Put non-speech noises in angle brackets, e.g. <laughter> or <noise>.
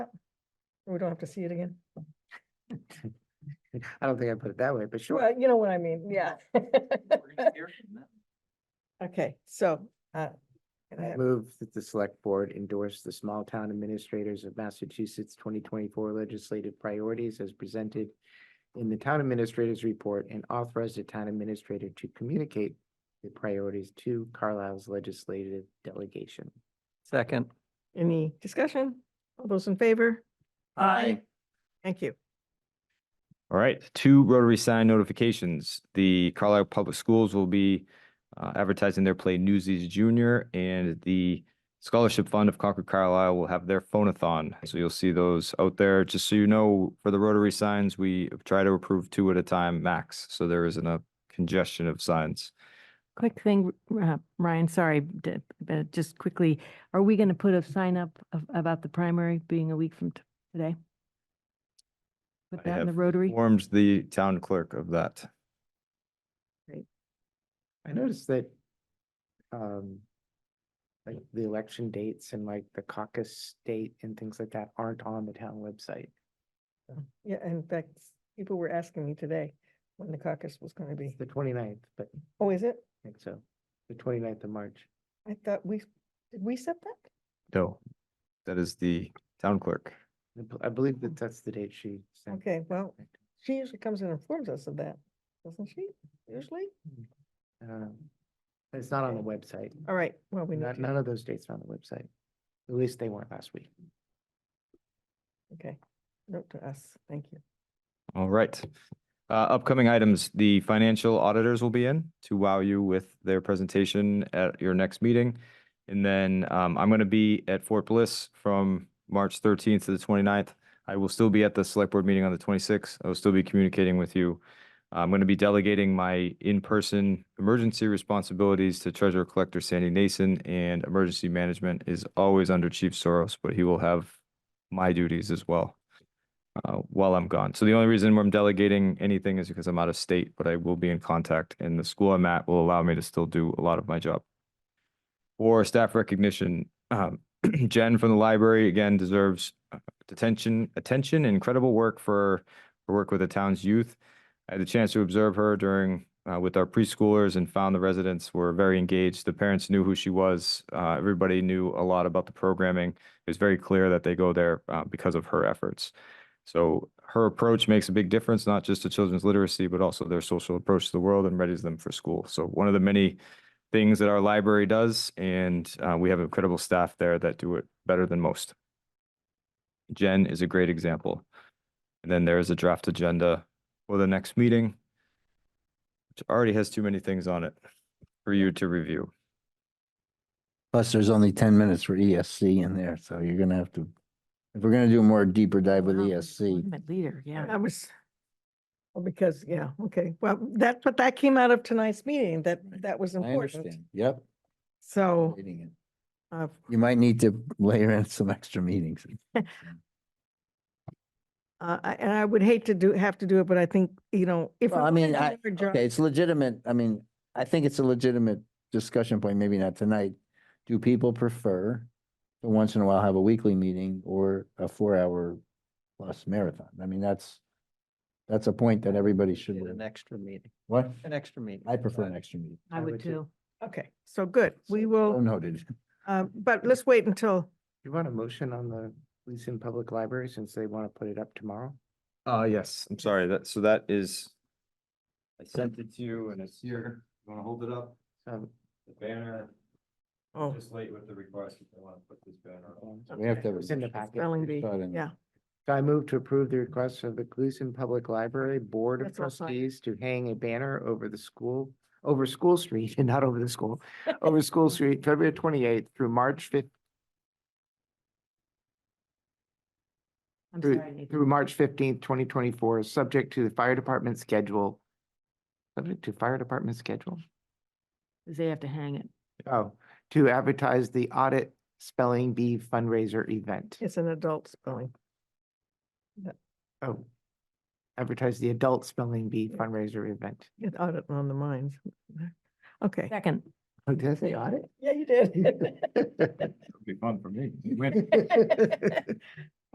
We don't have to see it again. <laughs> I don't think I put it that way, but sure. Well, you know what I mean, yeah. <laughs> Okay, so, uh, can I have- Move that the select board endorse the small town administrators of Massachusetts twenty twenty-four legislative priorities as presented in the town administrator's report and authorize the town administrator to communicate the priorities to Carlisle's legislative delegation. Second. any discussion? All those in favor? Aye. Thank you. All right, two Rotary sign notifications. The Carlisle Public Schools will be uh, advertising their play Newsies Junior and the Scholarship Fund of Concord Carlisle will have their phonathon. So you'll see those out there. Just so you know, for the Rotary signs, we try to approve two at a time max, so there isn't a congestion of signs. Quick thing, uh, Ryan, sorry, d- but just quickly, are we going to put a sign up of- about the primary being a week from t- today? Put I that in the have Rotary? Informed the town clerk of that. I noticed that um like the election dates and like the caucus date and things like that aren't on the town website. Yeah, in fact, people were asking me today when the caucus was gonna be. It's the 29th, but I Oh, is it? think so, the 29th of March. I thought we, did we set that? No. That is the town clerk. I bel- I believe that that's the date she sent. Mm-hmm. Okay, well, she usually comes and informs us of that, doesn't she? Usually? Um, It's not on the website. All right, well, we need None, to, none of those dates are on the website. At least they weren't last week. okay. Note to us, thank you. All right. Uh, upcoming items, the financial auditors will be in to wow you with their presentation at your next meeting. And then, um, I'm going to be at Fort Bliss from March thirteenth to the 29th. I will still be at the select board meeting on the twenty-sixth. I will still be communicating with you. I'm going to be delegating my in-person emergency responsibilities to Treasurer Collector Sandy Nason and emergency management is always under Chief Soros, but he will have my duties as well uh, while I'm gone. So the only reason why I'm delegating anything is because I'm out of state, but I will be in contact and the school I'm at will allow me to still do a lot of my job. For staff recognition, um, <clears throat> Jen from the library again deserves uh, detention, attention, and incredible work for her work with the town's youth. I had the chance to observe her during, uh, with our preschoolers and found the residents were very engaged. The parents knew who she was. Uh, everybody knew a lot about the programming. It was very clear that they go there, uh, because of her efforts. So her approach makes a big difference, not just to children's literacy, but also their social approach to the world and readies them for school. So one of the many things that our library does, and uh, we have incredible staff there that do it better than most. Jen is a great example. And then there is a draft agenda for the next meeting, which already has too many things on it for you to review. Plus, there's only ten minutes for ESC in there, so you're gonna have to, if we're gonna do a more deeper dive with E Wow, ESC. tournament Leader, yeah. I was, well, because, yeah, okay, well, that's what that came out of tonight's meeting, that, that was I important. understand. Oh. Yep. So, reading it. uh, You might need to <laughs> layer in some extra meetings. uh, I- and I would hate to do, have to do it, but I think, you know, if. Well, we're I mean, gonna I, do our job- okay, it's legitimate. I mean, I think it's a legitimate discussion point, maybe not tonight. Do people prefer to once in a while have a weekly meeting or a four-hour plus marathon? I mean, that's, that's a point that everybody should, An extra meeting, what? an extra meeting. I prefer an extra meeting. Oh, I would too. Okay, so good, we So will, Noted. uh, but let's wait until, You want a motion on the Leeson Public Library since they want to put it up tomorrow? Uh, yes. I'm sorry, that, so that is, I sent it to you and it's here. You want to hold it up? Um, The banner, oh, just late with the request if they want to put this banner on. We have to It have. a- was in the packet. spelling bee, <laughs> Thought in- yeah, So I move to approve the request of the Gleason Public Library Board of That's all fine. Trustees to hang a banner over the school, over School Street, <laughs> and not over the school, Oh, over School Street, February twenty-eighth through March fifth, I'm through, sorry, Nathan. through March fifteenth, twenty twenty-four, subject to the fire department schedule. Subject to fire department schedule? They have to hang it. Oh, to advertise the audit spelling bee fundraiser event. it's an adult spelling. Oh. Advertise the adult spelling bee fundraiser event. Get audit on the minds. Okay. Second, Oh, did I say audit? Yeah, you did. <laughs> It'd be fun for me. Win.